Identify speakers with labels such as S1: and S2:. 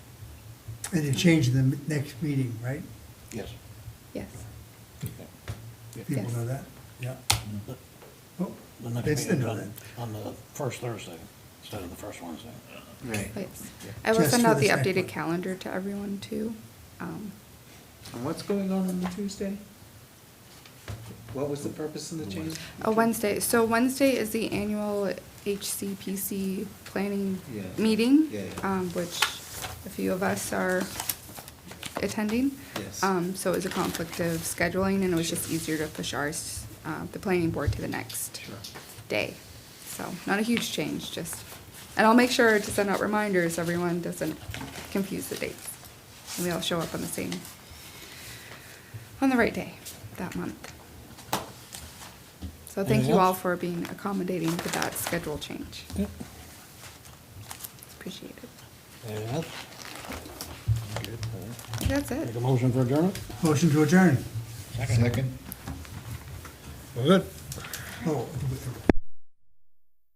S1: And to change the m- next meeting, right?
S2: Yes.
S3: Yes.
S1: People
S3: Yes.
S1: know that? Yeah.
S2: The
S1: Oh,
S2: the next
S1: They still
S2: meeting's
S1: know
S2: on, on the first Thursday instead of the first Wednesday.
S4: Right.
S3: Yes. I will
S1: Just
S3: send
S1: for
S3: out the
S1: this next
S3: updated
S1: one.
S3: calendar to everyone too. Um,
S4: And what's going on on the Tuesday? What was the purpose of the change?
S3: A oh, Wednesday, so Wednesday is the annual HCPC planning
S4: Yeah.
S3: meeting.
S4: Yeah, yeah.
S3: um, Which a few of us are attending.
S4: Yes.
S3: Um, So it was a conflict of scheduling and it was just easier to push ours, uh, the planning board to the next
S4: Sure.
S3: day. So not a huge change, just, and I'll make sure to send out reminders, everyone doesn't confuse the dates. And we all show up on the same, on the right day that month. So thank
S2: Anything
S3: you all
S2: else?
S3: for being accommodating to that schedule change.
S2: Yep.
S3: It's appreciated.
S2: Anything else?
S3: I think That's
S2: Make
S3: it.
S2: a motion for adjournment?
S1: Motion to adjourn.
S2: Second. We're good.
S1: Oh,